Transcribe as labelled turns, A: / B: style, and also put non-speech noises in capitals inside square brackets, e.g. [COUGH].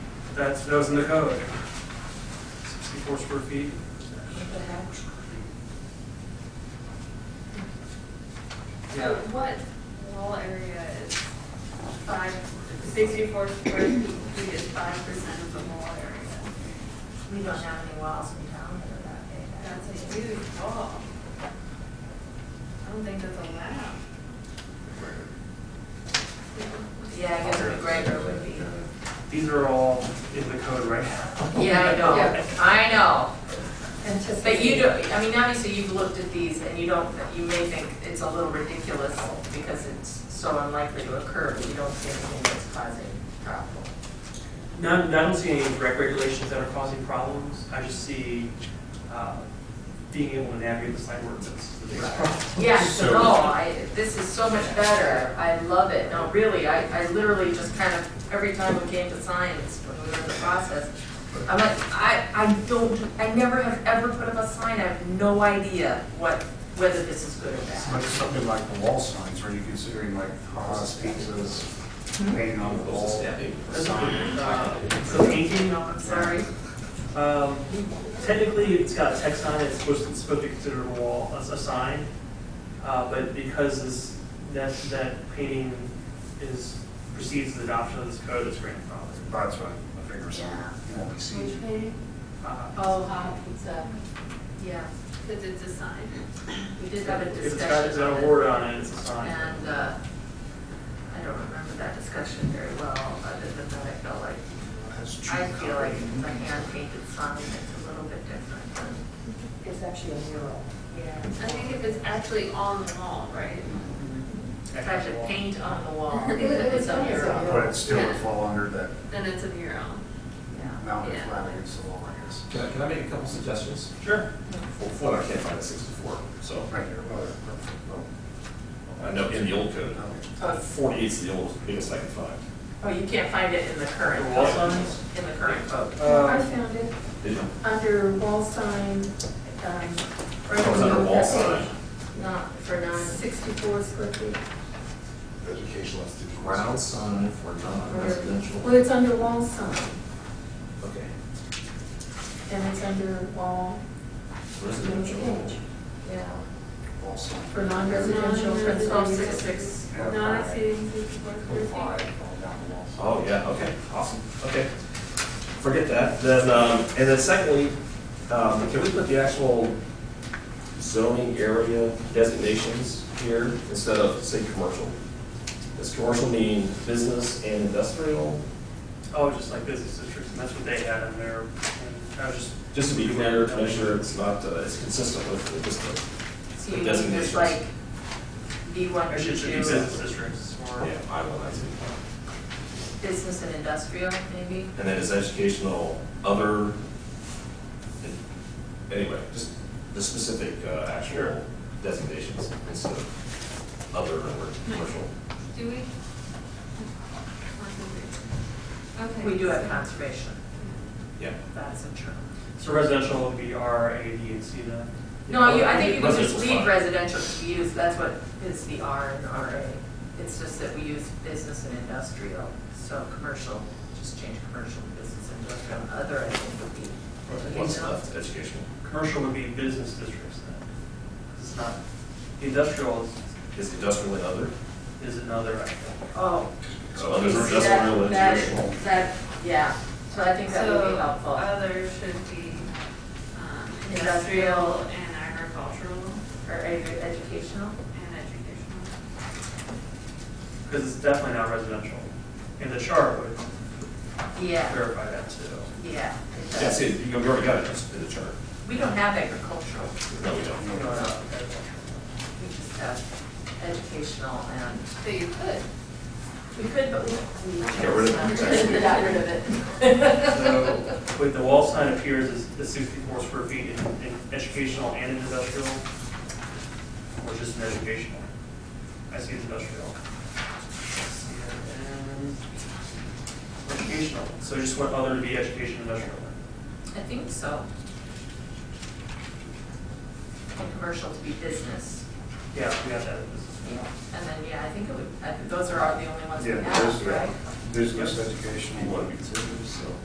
A: That's, that was in the code. Sixty-four square feet.
B: So
A: Yeah,
B: what wall area is five, sixty-four square feet is five percent of the wall area?
C: We don't have any walls in town that are that big.
B: That's a huge wall. I don't think that's allowed.
C: Yeah, I guess McGregor would be.
A: these are all in the code right now.
C: Yeah, I know,
B: Yeah.
C: I know.
D: Anticipated.
C: But you don't, I mean, obviously you've looked at these and you don't, you may think it's a little ridiculous because it's so unlikely to occur, but you don't see anything that's causing trouble.
E: Not, I don't see any direct regulations that are causing problems. I just see uh, being able to navigate the sign ordinance. the biggest problem.
C: Yes,
F: So-
C: no, I, this is so much better, I love it, no, really, I, I literally just kind of, every time we came to science, when we were in the process, I'm like, I, I don't, I never have ever put up a sign, I have no idea what, whether this is good or
F: It's
C: bad.
F: like something like the wall signs, are you considering like Haas
C: Hmm?
F: pizzas, painting on the wall?
E: That's a good, uh, So painting,
C: No, I'm sorry,
E: um, technically, it's got text on it, it's supposed, it's supposed to be considered a wall, a a sign. Uh, But because this, that, that painting is, precedes the adoption of this code, it's grandfathered.
F: That's what I figure so, you won't be seen.
E: Uh,
D: Oh, hot pizza.
C: yeah,
B: Because it's a sign.
C: we did have a
E: If it's got, it's
C: discussion
E: got
C: on
E: a
C: it.
E: word on it, it's a sign.
C: And, uh, I don't remember that discussion very well, other than that I felt like I feel like the hand painted sign is a little bit different than.
D: It's actually a mural.
C: Yeah.
B: I think if it's actually on the wall, right?
C: If I should paint on the wall,
D: [LAUGHS] It- it
C: it's
D: was
C: a
D: nice,
C: mural.
F: But it still would fall under that
B: Then it's a mural.
C: Yeah.
F: mounted
B: Yeah.
F: flat against the wall, I guess.
G: Can I, can I make a couple suggestions?
E: Sure.
G: Well, for one, I can't find a sixty-four, so,
F: Right there, well, there, oh. perfect, well,
G: I know Uh, in the old code, uh,
F: no.
C: Oh,
G: forty-eight's the old, biggest I can find.
C: Oh, you can't find it in the
E: The
C: current
E: wall
C: code,
E: signs?
C: in the current code.
D: I
E: Uh,
D: found it
G: Did you?
D: under wall sign, um.
G: Oh, it's under wall sign.
C: Not for non,
D: Sixty-four square feet.
F: Educational institution.
G: Ground sign for
D: Well,
G: non-residential.
D: it's under wall sign,
G: Okay.
D: and it's under wall,
G: Residential.
D: yeah,
F: um, Wall sign.
D: for non-residential. for
C: it's all
D: thirty.
C: six, six.
F: Yeah,
B: Not
F: five,
B: exceeding sixty-four square feet.
F: Five, all down the wall.
G: Oh, yeah, okay, awesome, okay. Forget that, then, um, and then secondly, um, can we put the actual zoning area designations here instead of, say, commercial? Does commercial mean business and industrial?
E: Oh, just like business districts, and that's what they had in there. And I was just
G: Just to be clear, to make sure it's not, uh, it's consistent with the district.
C: So you need
G: Designations.
C: this like B one,
E: Actually,
C: B
E: it should be
C: two,
E: business districts or.
G: Yeah, I will, that's it.
C: business and industrial maybe?
G: And then is educational other, anyway, just the specific uh, actual
E: Sure.
G: designations instead of other or commercial.
B: Do we? Okay.
C: We do have conservation,
G: Yeah.
C: that's a term.
E: So residential would be R, A, D, and C then?
C: No, you, I think you can just
G: Residential's
C: leave
G: fine.
C: residential to use, that's what is the R and RA. It's just that we use business and industrial, so commercial, just change commercial to business and industrial, other I think would be.
G: What's left, educational,
E: Commercial would be business districts then. 'Cause It's not, the industrial is,
G: is industrial and other,
E: is another, I think.
C: Oh.
G: so others are
C: see,
G: just
C: that-
G: real
C: that-
G: educational.
C: That, yeah, so I think that would
B: So
C: be helpful.
B: other should be um,
C: Industrial.
B: industrial and agricultural
C: Or ed- educational?
B: and educational.
E: Because it's definitely not residential. And the chart would
C: Yeah,
E: verify that too.
C: yeah. it does.
G: Yeah, see, you already got it just in the chart.
C: We don't have agricultural,
G: No, we don't.
E: You know, not-
C: we just have educational and,
B: But you could.
C: we could, but we. we-
G: Get rid of it.
C: We got rid of it.
E: So, wait, the wall sign appears as the sixty-four square feet in, in educational and in industrial? Or just in educational? I see it's industrial. See it in Educational, so just want other to be education industrial.
C: I think so. And commercial to be business.
E: Yeah, we have that in business.
C: And then, yeah, I think
G: Oh.
C: it would, I think those are all the only ones we
F: Yeah, there's,
C: have, right?
F: there's this educational.
G: You want to be considered, so.